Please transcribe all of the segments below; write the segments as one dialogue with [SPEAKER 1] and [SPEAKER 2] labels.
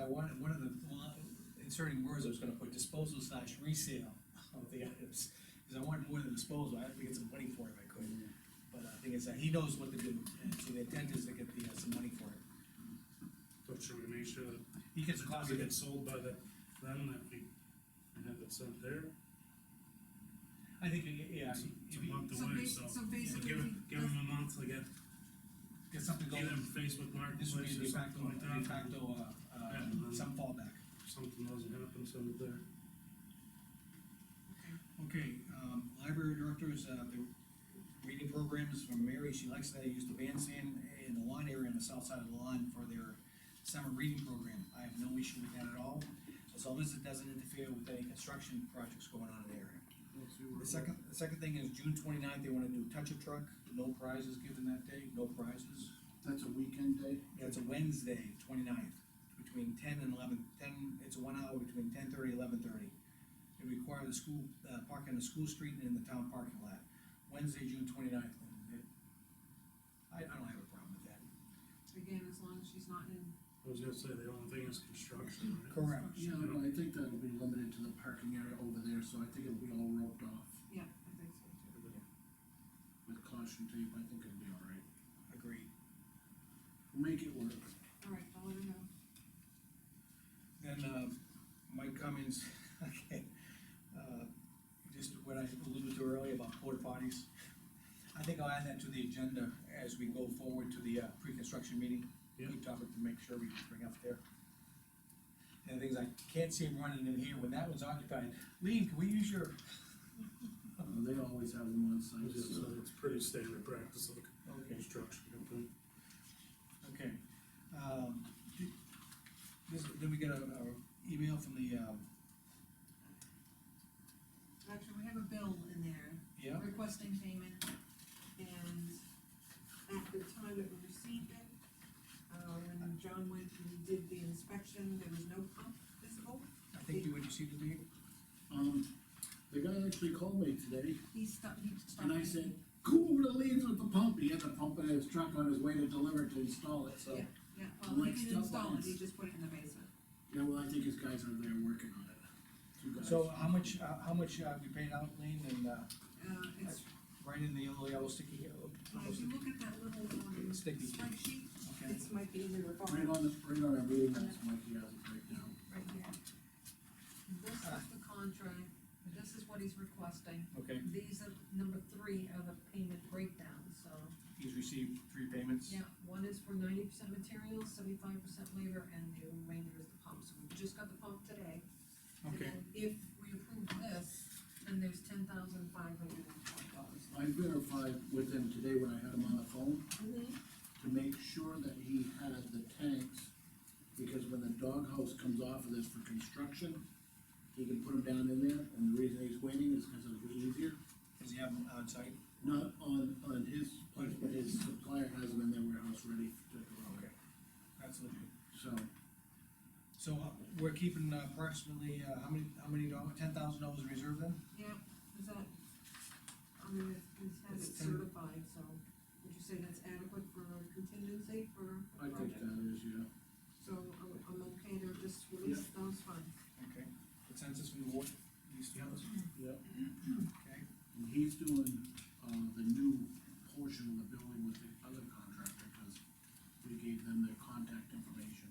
[SPEAKER 1] I wanted, one of the, well, inserting words, I was gonna put disposal slash resale of the items. Cause I wanted more than disposal, I have to get some money for it if I could,
[SPEAKER 2] Mm-hmm.
[SPEAKER 1] but uh, the thing is that he knows what to do, and so the intent is to get the, uh, some money for it.
[SPEAKER 2] So should we make sure that
[SPEAKER 1] He gets a
[SPEAKER 2] if
[SPEAKER 1] closet,
[SPEAKER 2] it gets sold by the, then that we have it sent there?
[SPEAKER 1] I think, yeah,
[SPEAKER 2] It's
[SPEAKER 1] if
[SPEAKER 2] it's a
[SPEAKER 1] he
[SPEAKER 2] month
[SPEAKER 3] So
[SPEAKER 2] away,
[SPEAKER 3] basi-
[SPEAKER 2] so.
[SPEAKER 3] so
[SPEAKER 2] we'll
[SPEAKER 3] basically
[SPEAKER 2] Give
[SPEAKER 3] he
[SPEAKER 2] him, give him a month to get
[SPEAKER 1] gets something going,
[SPEAKER 2] either Facebook
[SPEAKER 1] this would be
[SPEAKER 2] Marketplace
[SPEAKER 1] a
[SPEAKER 2] or
[SPEAKER 1] de facto,
[SPEAKER 2] something like
[SPEAKER 1] de
[SPEAKER 2] that.
[SPEAKER 1] facto, uh, uh,
[SPEAKER 2] Yeah.
[SPEAKER 1] some fallback.
[SPEAKER 2] If Something doesn't happen, send it there.
[SPEAKER 3] Okay.
[SPEAKER 1] Okay, um, library directors, uh, the reading programs from Mary, she likes that, I use the bandstand in the lawn area on the south side of the lawn for their summer reading program, I have no issue with that at all, as long as it doesn't interfere with any construction projects going on in the area. The second, the second thing is June 29th. they wanna do touch-up truck, no prizes given that day, no prizes.
[SPEAKER 4] That's a weekend day?
[SPEAKER 1] Yeah, it's a Wednesday, 29th, between ten and eleven, ten, it's one hour between ten thirty, eleven thirty. They require the school, uh, park on the school street and in the town parking lot, Wednesday, June 29th. and it- I, I don't have a problem with that.
[SPEAKER 3] Again, as long as she's not in,
[SPEAKER 2] I was gonna say, the only thing is construction, right?
[SPEAKER 1] Correct.
[SPEAKER 4] Yeah, but I think that'll be limited to the parking area over there, so I think it'll be all roped off
[SPEAKER 3] yeah, I think so too.
[SPEAKER 4] with caution tape, I think it'll be all right.
[SPEAKER 1] Agreed.
[SPEAKER 4] Make it work. Uh,
[SPEAKER 3] All right, I'll let her know.
[SPEAKER 1] Then, um, Mike Cummins, okay, uh, just what I alluded to earlier about porta potties. I think I'll add that to the agenda as we go forward to the, uh, pre-construction meeting.
[SPEAKER 2] Yeah.
[SPEAKER 1] Good topic to make sure we bring up there. And the things I can't see him running in here when that one's occupied. Lean, can we use your,
[SPEAKER 4] Uh, They always have them on
[SPEAKER 2] I was
[SPEAKER 4] site,
[SPEAKER 2] gonna
[SPEAKER 4] so.
[SPEAKER 2] say, It's pretty standard practice of a
[SPEAKER 1] okay,
[SPEAKER 2] construction company.
[SPEAKER 1] Okay, um, th- this, then we get a, a email from the, um,
[SPEAKER 3] Actually, we have a bill in there
[SPEAKER 1] yeah,
[SPEAKER 3] requesting payment, and at the time that we received it, uh, when John went and did the inspection, there was no pump visible.
[SPEAKER 1] I think you would receive the deed.
[SPEAKER 4] Um, the guy actually called me today
[SPEAKER 3] He stopped, he stopped.
[SPEAKER 4] and I said, go over the leaves with the pump. He had the pump in his truck on his way to deliver to install it, so.
[SPEAKER 3] Yeah, well, he
[SPEAKER 4] Like
[SPEAKER 3] didn't
[SPEAKER 4] stuff
[SPEAKER 3] install it, he
[SPEAKER 4] lines.
[SPEAKER 3] just put it in the basement.
[SPEAKER 4] Yeah, well, I think his guys are there working on it. Two guys.
[SPEAKER 1] So how much, uh, how much, uh, we paid out, Lean, and, uh,
[SPEAKER 3] Uh, it's,
[SPEAKER 1] Right in the yellow, yellow sticky, yellow.
[SPEAKER 3] uh, if you look at that little, um,
[SPEAKER 1] Sticky.
[SPEAKER 3] spreadsheet,
[SPEAKER 1] Okay,
[SPEAKER 3] it's might be in the
[SPEAKER 4] Right
[SPEAKER 3] bottom,
[SPEAKER 4] on the, right on our meeting notes, Mikey has it right now.
[SPEAKER 3] right here. This is
[SPEAKER 1] Ah.
[SPEAKER 3] the contract, this is what he's requesting,
[SPEAKER 1] okay,
[SPEAKER 3] these are, number three are the payment breakdowns, so.
[SPEAKER 1] he's received three payments.
[SPEAKER 3] Yeah, one is for ninety percent materials, seventy-five percent labor, and the remainder is the pump, so we just got the pump today. And
[SPEAKER 1] Okay,
[SPEAKER 3] then If we approve this, then there's ten thousand five hundred and twelve dollars.
[SPEAKER 4] I verified with him today when I had him on the phone. to make sure that he had the tanks, because when the doghouse comes off of this for construction, he can put them down in there, and the reason he's waiting is because it'll be easier.
[SPEAKER 1] does he have them on site?
[SPEAKER 4] Not on, on his place, but his supplier has them in their warehouse ready to go.
[SPEAKER 1] That's legit.
[SPEAKER 4] So,
[SPEAKER 1] So uh, we're keeping uh, approximately, uh, how many, how many dollars, ten thousand dollars in reserve then?
[SPEAKER 3] Yeah, is that, I mean, it's, it's had it
[SPEAKER 1] It's ten-
[SPEAKER 3] certified, so would you say that's adequate for contingency for
[SPEAKER 4] I
[SPEAKER 3] a
[SPEAKER 4] think
[SPEAKER 3] project?
[SPEAKER 4] that is, yeah.
[SPEAKER 3] So I'm, I'm okay to just release those funds.
[SPEAKER 1] Okay, consensus from the board, these two others?
[SPEAKER 4] Yep.
[SPEAKER 1] Okay,
[SPEAKER 4] And he's doing, uh, the new portion of the building with the other contractor, because we gave them their contact information.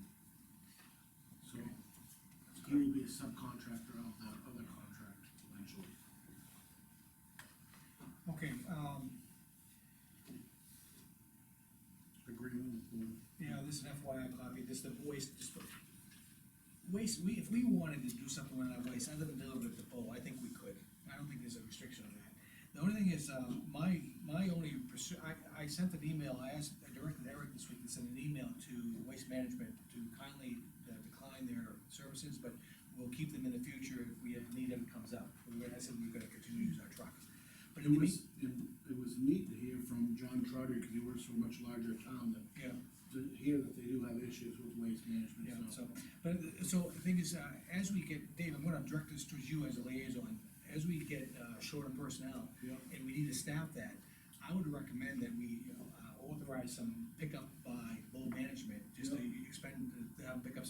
[SPEAKER 4] So,
[SPEAKER 1] Okay.
[SPEAKER 4] he will be a subcontractor of the other contract eventually.
[SPEAKER 1] okay, um,
[SPEAKER 4] Agreement with board.
[SPEAKER 1] Yeah, this is an FYI copy, this is the waste, just the waste, we, if we wanted to do something with that waste, other than deliver it to Bo, I think we could. I don't think there's a restriction on that. The only thing is, uh, my, my only pursuit, I, I sent an email, I asked, I directed Eric this week to send an email to Waste Management to kindly uh, decline their services, but we'll keep them in the future if we need them comes up. We were- I said we we're gonna continue to use our truck. But
[SPEAKER 4] It
[SPEAKER 1] in the
[SPEAKER 4] was,
[SPEAKER 1] mean,
[SPEAKER 4] it, it was neat to hear from John Trotter, because he works for a much larger town, that,
[SPEAKER 1] yeah.
[SPEAKER 4] to hear that they do have issues with waste
[SPEAKER 1] Yeah,
[SPEAKER 4] management,
[SPEAKER 1] so,
[SPEAKER 4] so.
[SPEAKER 1] but, uh, so the thing is, uh, as we get, Dave, I'm gonna direct this towards you as a liaison, as we get, uh, short on personnel,
[SPEAKER 4] Yeah.
[SPEAKER 1] and we need to staff that, I would recommend that we uh, authorize some pickup by low management, just to expend, to have pickups